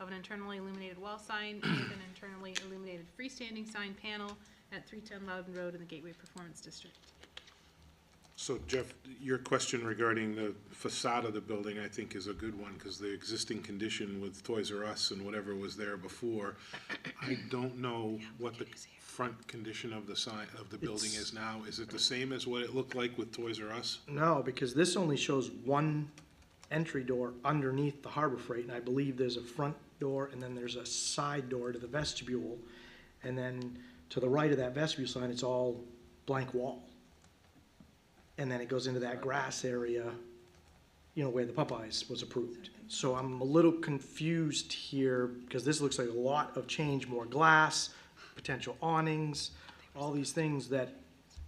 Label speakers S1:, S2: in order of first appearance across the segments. S1: of an internally illuminated wall sign with an internally illuminated freestanding sign panel at 310 Loudon Road in the Gateway Performance District.
S2: So Jeff, your question regarding the facade of the building, I think, is a good one, because the existing condition with Toys R Us and whatever was there before, I don't know what the front condition of the sign, of the building
S3: It's-
S2: is now. Is it the same as what it looked like with Toys R Us?
S3: No, because this only shows one entry door underneath the Harbor Freight, and I believe there's a front door, and then there's a side door to the vestibule. And then to the right of that vestibule sign, it's all blank wall. And then it goes into that grass area, you know, where the Popeyes was approved. So I'm a little confused here, because this looks like a lot of change, more glass, potential awnings, all these things that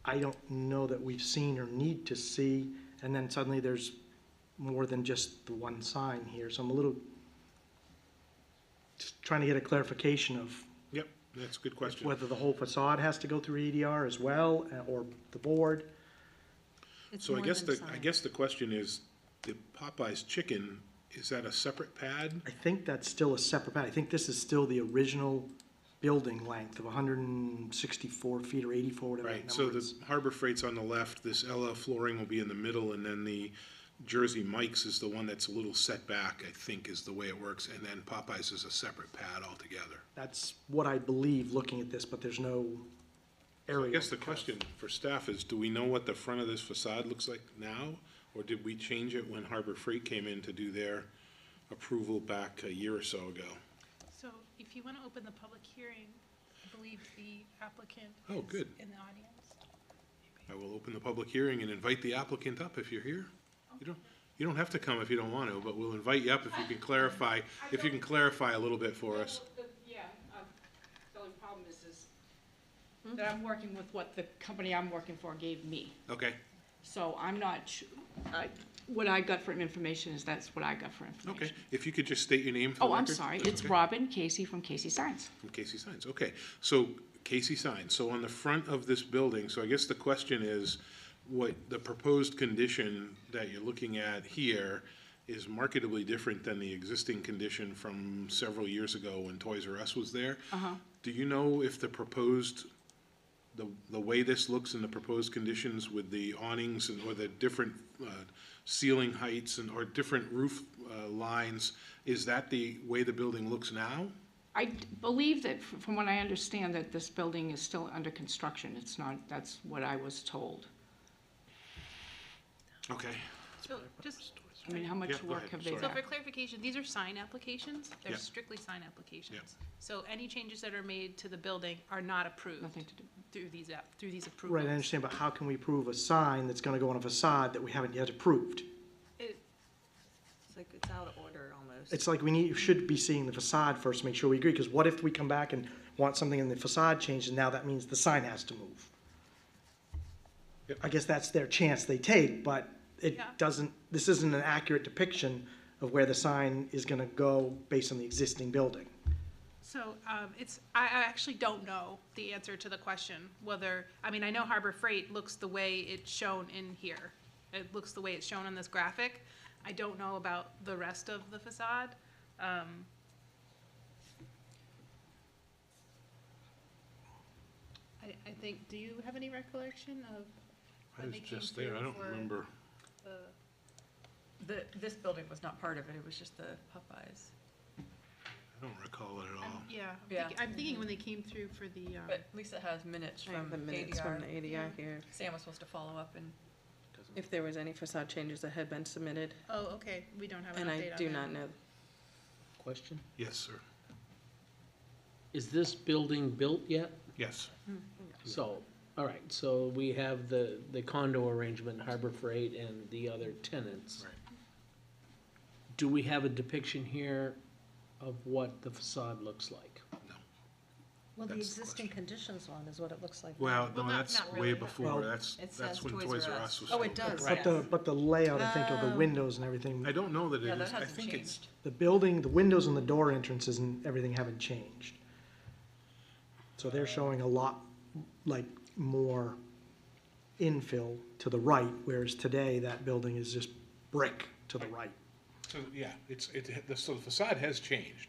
S3: I don't know that we've seen or need to see, and then suddenly there's more than just the one sign here, so I'm a little just trying to get a clarification of
S2: Yep, that's a good question.
S3: whether the whole facade has to go through EDR as well, uh, or the board.
S1: It's
S2: So I
S1: more
S2: guess
S1: than
S2: the, I
S1: sign.
S2: guess the question is, the Popeye's chicken, is that a separate pad?
S3: I think that's still a separate pad, I think this is still the original building length of hundred and sixty-four feet or eighty-four, whatever
S2: Right,
S3: that
S2: so
S3: number
S2: the
S3: is.
S2: Harbor Freight's on the left, this LL flooring will be in the middle, and then the Jersey Mike's is the one that's a little set back, I think, is the way it works, and then Popeye's is a separate pad altogether.
S3: That's what I believe, looking at this, but there's no
S2: I
S3: area.
S2: guess the question for staff is, do we know what the front of this facade looks like now? Or did we change it when Harbor Freight came in to do their approval back a year or so ago?
S1: So if you want to open the public hearing, I believe the applicant
S2: Oh,
S1: is
S2: good.
S1: in the audience.
S2: I will open the public hearing and invite the applicant up if you're here. You don't, you don't have to come if you don't want to, but we'll invite you up if you can clarify, if you can clarify a little bit for us.
S4: The- Yeah, uh, the only problem is, is
S1: Hmm?
S4: that I'm working with what the company I'm working for gave me.
S2: Okay,
S4: So I'm not, su- I- what I got for information is that's what I got for
S2: okay.
S4: information.
S2: If you could just state your name for the
S4: Oh, I'm
S2: record.
S4: sorry,
S2: That's
S4: it's
S2: okay.
S4: Robin Casey from Casey Signs.
S2: From Casey Signs, okay. So Casey Signs, so on the front of this building, so I guess the question is, what, the proposed condition that you're looking at here is marketably different than the existing condition from several years ago when Toys R Us was there? Uh-huh. Do you know if the proposed, the, the way this looks in the proposed conditions with the awnings and, or the different, uh, ceiling heights and, or different roof, uh, lines, is that the way the building looks now?
S4: I d- believe that, f- from what I understand, that this building is still under construction. It's not, that's what I was told.
S2: Okay.
S1: So just,
S4: I mean, how
S2: Yeah,
S4: much
S2: go
S4: work
S2: ahead,
S4: have they
S2: sorry.
S1: so
S4: done?
S1: for clarification, these are sign applications? They're
S2: Yeah.
S1: strictly sign applications. So any changes that are made to the building are not approved
S4: Nothing to do.
S1: through these, app- through these approvals.
S3: Right, I understand, but how can we prove a sign that's gonna go on a facade that we haven't yet approved?
S1: It-
S5: It's like it's out of order almost.
S3: It's like we need, should be seeing the facade first, to make sure we agree, because what if we come back and want something in the facade changed, and now that means the sign has to move?
S2: Yep.
S3: I guess that's their chance they take, but it
S1: Yeah.
S3: doesn't, this isn't an accurate depiction of where the sign is gonna go based on the existing building.
S1: So um, it's, I I actually don't know the answer to the question, whether, I mean, I know Harbor Freight looks the way it's shown in here. It looks the way it's shown on this graphic. I don't know about the rest of the facade. Um, I, I think, do you have any recollection of
S2: I
S1: when
S2: was
S1: they came
S2: just there,
S1: through
S2: I don't
S1: for
S2: remember.
S1: the?
S5: The, this building was not part of it, it was just the Popeyes.
S2: I don't recall it at all.
S1: I'm- Yeah, I'm
S5: Yeah.
S1: thinking- I'm thinking when they came through for the, um,
S5: But Lisa has minutes
S6: I have
S5: from
S6: the minutes from
S5: ADR.
S6: the ADR here.
S5: Sam was supposed to follow up and
S6: If there was any facade changes that had been submitted,
S1: oh, okay, we don't have an update
S6: and
S1: on
S6: I
S1: that.
S6: do not know.
S7: Question,
S2: Yes, sir.
S7: is this building built yet?
S2: Yes.
S7: So, all right, so we have the, the condo arrangement, Harbor Freight and the other tenants.
S2: Right.
S7: Do we have a depiction here of what the facade looks like?
S8: Well, the
S2: That's the
S8: existing conditions one is what it looks like.
S2: Well,
S1: Well,
S2: no,
S1: not-
S2: that's
S1: not
S2: way
S1: really.
S2: before,
S3: Well,
S2: that's,
S5: it
S2: that's
S5: says
S2: when
S5: Toys
S2: Toys
S5: R
S2: R
S5: Us.
S2: Us was
S5: Oh,
S2: still
S5: it
S2: there.
S5: does,
S3: But the, but the layout, I think, of the
S6: Oh.
S3: windows and everything,
S2: I don't know that
S5: Yeah,
S2: it
S5: that
S2: is, I
S5: hasn't
S2: think it's,
S5: changed.
S3: the building, the windows and the door entrances and everything haven't changed. So they're showing a lot, like, more infill to the right, whereas today, that building is just brick to the right.
S2: so, yeah, it's, it, the- so the facade has changed.